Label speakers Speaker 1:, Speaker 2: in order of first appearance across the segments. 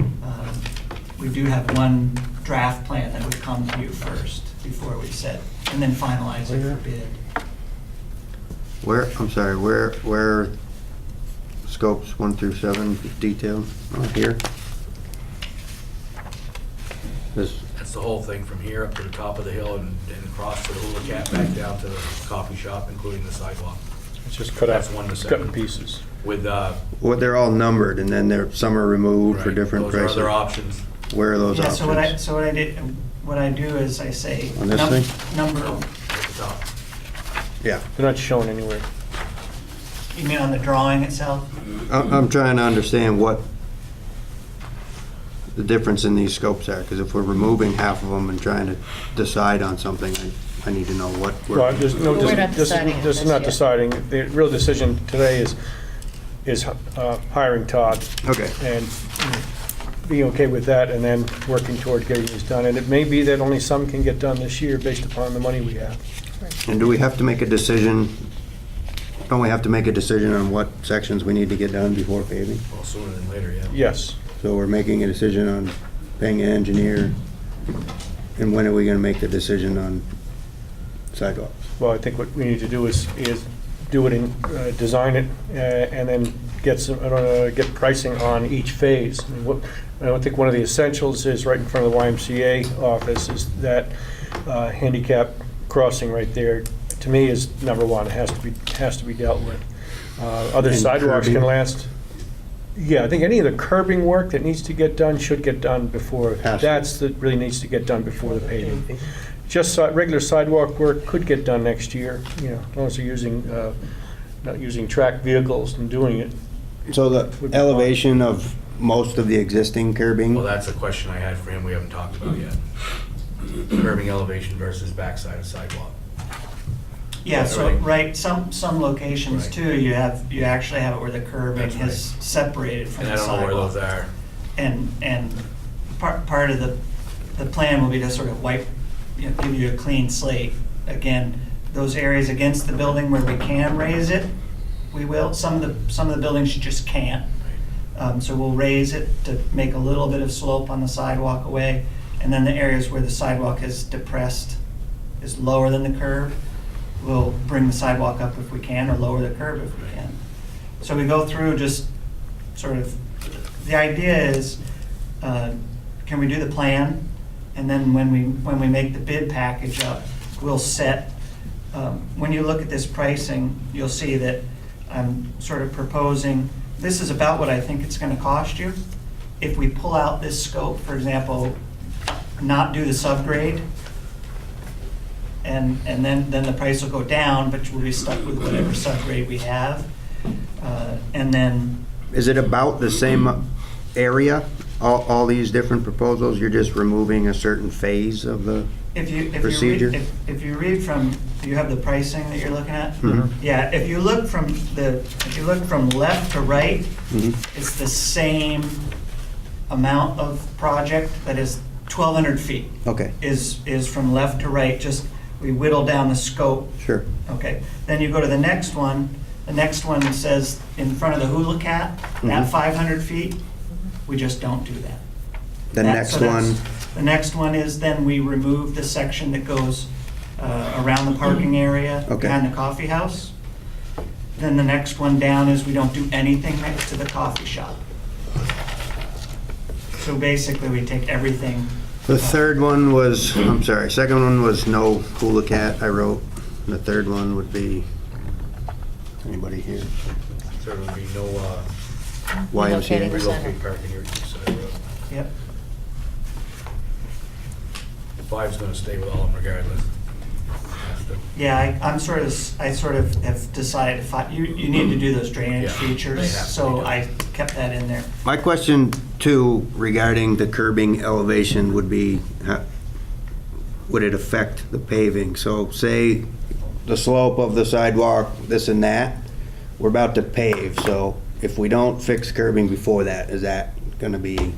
Speaker 1: Um, we do have one draft plan that would come to you first before we set, and then finalize it for bid.
Speaker 2: Where, I'm sorry, where, where scopes one through seven detailed on here? This,
Speaker 3: That's the whole thing, from here up to the top of the hill and and across to the Hula Cat, back down to the coffee shop, including the sidewalk,
Speaker 4: It's just cut
Speaker 3: That's
Speaker 4: out,
Speaker 3: one to
Speaker 4: cut
Speaker 3: seven.
Speaker 4: in pieces.
Speaker 3: with, uh...
Speaker 2: well, they're all numbered and then there, some are removed for
Speaker 3: right,
Speaker 2: different
Speaker 3: Those are
Speaker 2: prices.
Speaker 3: other options.
Speaker 2: Where are those
Speaker 1: Yeah, so what I,
Speaker 2: options?
Speaker 1: so what I did, what I do is I say.
Speaker 2: On this
Speaker 1: num-
Speaker 2: thing?
Speaker 1: Number,
Speaker 3: at the top.
Speaker 2: Yeah,
Speaker 4: They're not shown anywhere.
Speaker 1: you mean on the drawing itself?
Speaker 2: I'm, I'm trying to understand what the difference in these scopes are, because if we're removing half of them and trying to decide on something, I, I need to know what. we're-
Speaker 4: Well, there's no,
Speaker 5: But
Speaker 4: this,
Speaker 5: we're not
Speaker 4: this
Speaker 5: deciding on
Speaker 4: this is
Speaker 5: this
Speaker 4: not
Speaker 5: yet.
Speaker 4: deciding. The real decision today is, is uh, hiring Todd
Speaker 2: Okay,
Speaker 4: and being okay with that and then working toward getting this done. And it may be that only some can get done this year based upon the money we have.
Speaker 2: and do we have to make a decision, don't we have to make a decision on what sections we need to get done before paving?
Speaker 3: Well, sooner than later, yeah.
Speaker 4: Yes.
Speaker 2: So we're making a decision on paying an engineer, and when are we gonna make the decision on sidewalks?
Speaker 4: Well, I think what we need to do is, is do it in, uh, design it, uh, and then get some, uh, get pricing on each phase. And what- I don't think one of the essentials is right in front of the YMCA office is that uh, handicap crossing right there, to me, is number one, It has to be, has to be dealt with. Uh, Other
Speaker 2: And
Speaker 4: sidewalks can
Speaker 2: curbing.
Speaker 4: last, yeah, I think any of the curbing work that needs to get done should get done before,
Speaker 2: Has to.
Speaker 4: that's, that really needs to get done before the paving. Just si- regular sidewalk work could get done next year, you know, as long as you're using, uh, not using tracked vehicles and doing it.
Speaker 2: So the elevation of most of the existing
Speaker 3: Well,
Speaker 2: curbing,
Speaker 3: that's a question I had for him we haven't talked about yet. Curbing elevation versus backside of sidewalk.
Speaker 1: Yeah, so,
Speaker 3: Right.
Speaker 1: right, some, some locations
Speaker 3: Right.
Speaker 1: too, you have, you actually have it where the curbing
Speaker 3: That's right.
Speaker 1: is separated from
Speaker 3: And I
Speaker 1: the
Speaker 3: don't know where
Speaker 1: sidewalk.
Speaker 3: those are.
Speaker 1: And, and part, part of the, the plan will be to sort of wipe, you know, give you a clean slate. Again, those areas against the building where we can raise it, we will. Some of the, some of the buildings you just can't. Um, So we'll raise it to make a little bit of slope on the sidewalk away. And then the areas where the sidewalk is depressed, is lower than the curb, we'll bring the sidewalk up if we can or lower the curb if we can. So we go through just sort of, the idea is, uh, can we do the plan? And then when we, when we make the bid package up, we'll set, um, when you look at this pricing, you'll see that I'm sort of proposing, this is about what I think it's gonna cost you. If we pull out this scope, for example, not do the subgrade, and, and then, then the price will go down, but we'll be stuck with whatever subgrade we have. Uh, And then
Speaker 2: is it about the same area? All, all these different proposals, you're just removing a certain phase of the,
Speaker 1: If you, if you
Speaker 2: Procedure?
Speaker 1: read, if- if you read from, you have the pricing that you're looking at?
Speaker 2: Mhm.
Speaker 1: Yeah, if you look from the, if you look from left to right,
Speaker 2: Mhm.
Speaker 1: it's the same amount of project that is 1,200 feet.
Speaker 2: okay,
Speaker 1: Is, is from left to right, just, we whittle down the scope
Speaker 2: sure.
Speaker 1: Okay, then you go to the next one. The next one says in front of the Hula Cat, at
Speaker 2: Mhm.
Speaker 1: 500 feet, we just don't do that.
Speaker 2: The
Speaker 1: That-
Speaker 2: next
Speaker 1: so that's-
Speaker 2: one,
Speaker 1: The next one is then we remove the section that goes uh, around the parking area
Speaker 2: Okay.
Speaker 1: behind the coffee house. Then the next one down is we don't do anything next to the coffee shop. So basically, we take everything.
Speaker 2: the third one was, I'm sorry, second one was no hula cat, I wrote. And The third one would be, anybody here?
Speaker 3: There would be no uh,
Speaker 2: YMCA.
Speaker 5: Relocating. Center.
Speaker 3: relocate parking here at the side of the road.
Speaker 1: Yep.
Speaker 3: Five's gonna stay with all of them regardless. Has to.
Speaker 1: Yeah, I, I'm sort of, s- I sort of have decided, if I- you, you need to do those drainage
Speaker 3: Yeah, they
Speaker 1: features,
Speaker 3: have to be
Speaker 1: so
Speaker 3: done.
Speaker 1: I kept that in there.
Speaker 2: My question two regarding the curbing elevation would be, how- would it affect the paving? So say the slope of the sidewalk, this and that, we're about to pave, so if we don't fix curbing before that, is that gonna be,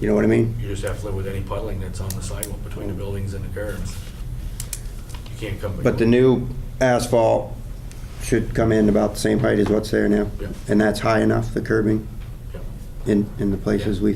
Speaker 2: you know what I mean?
Speaker 3: You just have to live with any puddling that's on the sidewalk between the buildings and the curbs. You can't come.
Speaker 2: But the new asphalt should come in about the same height as what's there now?
Speaker 3: Yep.
Speaker 2: And that's high enough, the curbing,
Speaker 3: Yep.
Speaker 2: in, in the places we